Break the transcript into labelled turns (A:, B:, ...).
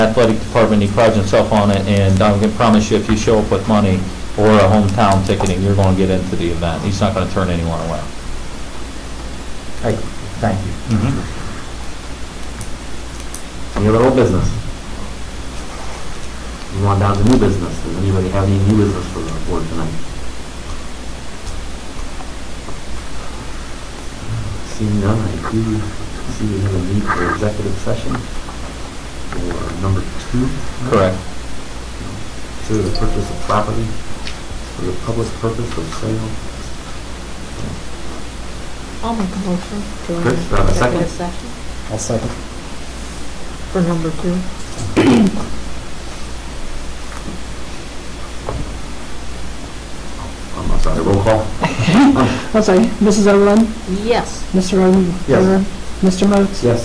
A: athletic department, he prides himself on it, and I can promise you, if you show up with money or a hometown ticketing, you're gonna get into the event. He's not gonna turn anyone away.
B: Great, thank you. Any other old business? Moving on down to new business. Does anybody have any new business for the board tonight? Seeing none, I do see we have a need for executive session for number two.
A: Correct.
B: Consider the purchase of property for the public purpose of sale.
C: I'll make a motion to.
B: Chris,
C: an
B: do I have a second?
C: executive session
D: I'll second.
C: For number two.
B: Um, I'm sorry, roll call?
E: I'll say, Mrs. Overland,
C: Yes.
E: Mr. Oden.
B: Yes.
E: Mr. Moats.
B: Yes.